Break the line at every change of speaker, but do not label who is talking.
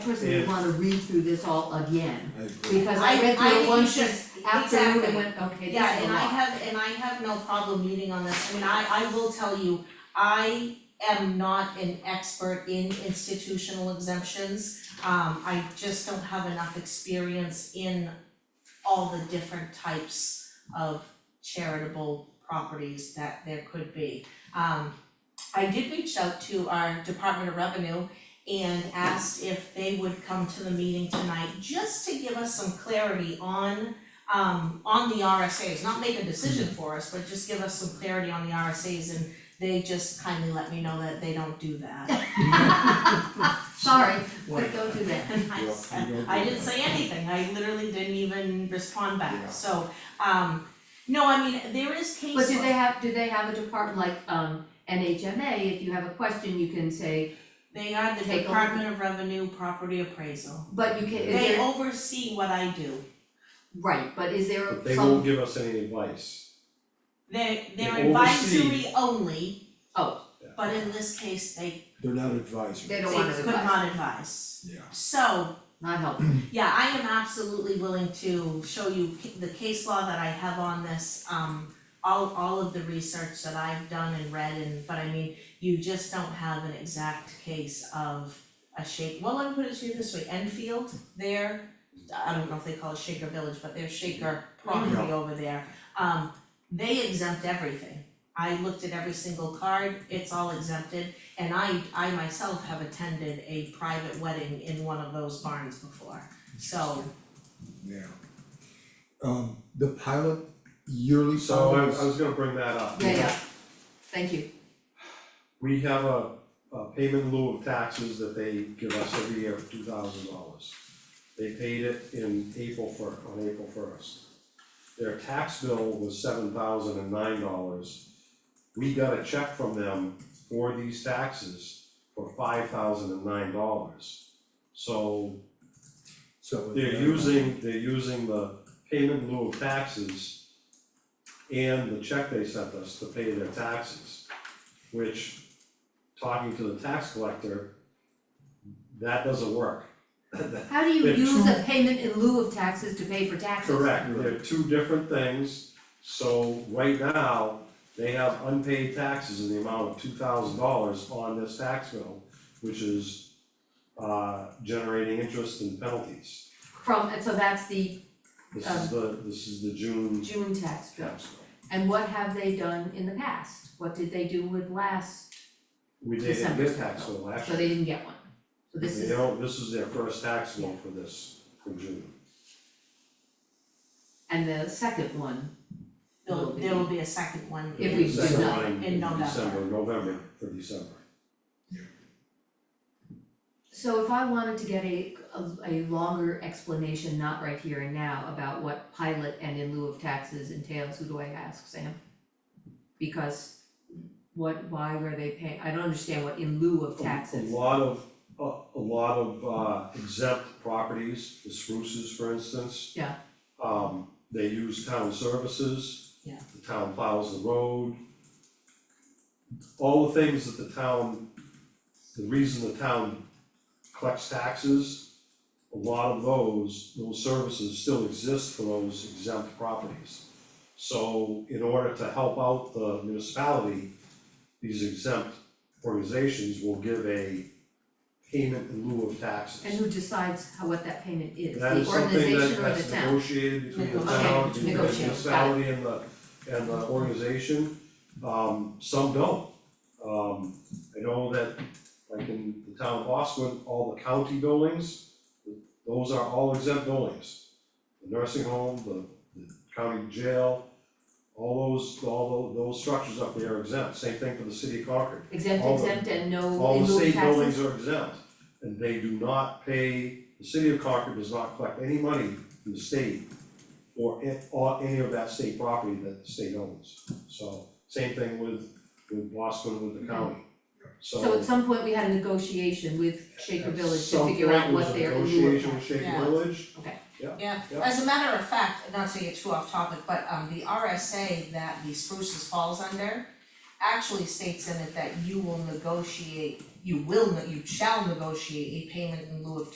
personally
Yes.
wanna read through this all again,
I agree.
because I read
I
through
think
it once
you should-
this afternoon and
exactly.
went, okay, this
Yeah,
is a
and I
lot.
have, and I have no problem meeting on this, I mean, I I will tell you, I am not an expert in institutional exemptions. Um, I just don't have enough experience in all the different types of charitable properties that there could be. Um, I did reach out to our Department of Revenue and asked if they would come to the meeting tonight, just to give us some clarity on um on the RSAs, not make a decision for us, but just give us some clarity on the RSAs and they just kindly let me know that they don't do that.
Sorry, but don't do that.
And I
Yeah,
said-
you don't
I
do
didn't
that.
say anything, I literally didn't even respond
Yeah.
back, so um no, I mean, there is case
But do
law.
they have, do they have a department like, um, NHMA, if you have a question, you can say,
They are the
Take over.
Department of Revenue Property Appraisal.
but you can, is
They
there,
oversee what I do.
right, but is there
But they won't
some,
give us any advice.
They they're
They oversee.
advisory only.
Oh.
But in this case, they
They're not advisory.
They
they
don't want
could
to advise.
not advise.
Yeah.
So
not helpful,
Yeah, I am absolutely willing to show you ca- the case law that I have on this, um, all, all of the research that I've done and read and, but I mean, you just don't have an exact case of a shake, well, let me put it to you this way, Enfield, there, I don't know if they call it Shaker Village, but there's Shaker property over there. Um, they exempt everything. I looked at every single card, it's all exempted, and I, I myself have attended a private wedding in one of those barns before. So,
Yeah. Um, the pilot yearly
So I
salary
was, I was gonna bring that up.
yeah, yeah, thank you,
We have a, a payment in lieu of taxes that they give us every year of two thousand dollars. They paid it in April fir, on April first. Their tax bill was seven thousand and nine dollars. We got a check from them for these taxes for five thousand and nine dollars. So
so.
They're using, they're using the payment in lieu of taxes and the check they sent us to pay their taxes, which, talking to the tax collector, that doesn't work.
how do you
They're
use
too-
a payment in lieu of taxes to pay for taxes?
Correct, they're two different things, so right now, they have unpaid taxes in the amount of two thousand dollars on this tax bill, which is uh generating interest and penalties.
From, and so that's the
This is the, this is the June
June tax bill,
tax bill.
and what have they done in the past, what did they do with last,
We did it
December.
this tax bill last
so
year.
they didn't get one, so this
They
is.
don't, this is their first tax bill for this, for June.
And the second one
there'll,
will be,
there will be a second one.
If we do
Second
not-
one
in November.
December, November for December.
so if I wanted to get a, a, a longer explanation, not right here and now, about what pilot and in lieu of taxes entails, who do I ask, Sam? Because what, why were they paying, I don't understand what in lieu of
A-
taxes.
A lot of, a, a lot of uh, exempt properties, the spruces, for instance.
Yeah.
Um, they use town services.
Yeah.
The town plows the road. All the things that the town, the reason the town collects taxes, a lot of those, those services still exist for those exempt properties. So in order to help out the municipality, these exempt organizations will give a payment in lieu of taxes.
And who decides how, what that payment is,
That
the
is something that
organization or the
that's
town?
negotiated between the
Negotiated,
town, between the
negotiated, got it.
municipality and the, and the organization. Um, some don't. Um, I know that, like in the town of Boston, all the county buildings, those are all exempt buildings. The nursing home, the, the county jail, all those, all tho- those structures up there are exempt. Same thing for the city of Concord.
Exempt,
all the-
exempt and no
All
um, in
the
lieu of
state
taxes,
buildings are exempt, and they do not pay, the city of Concord does not collect any money from the state for it, or any of that state property that the state owns, so, same thing with, with Boston, with the county,
Mm-hmm. so
so.
at some point we had a negotiation with Shaker Village to figure out what their in
At some point,
lieu of
it was a negotiation with
taxes.
Shaker
Yeah.
Village,
Yeah,
Yeah.
as a matter of fact, not to get too off topic, but um the RSA that the spruces falls under actually states in it that you will negotiate, you will, ne- you shall negotiate a payment in lieu of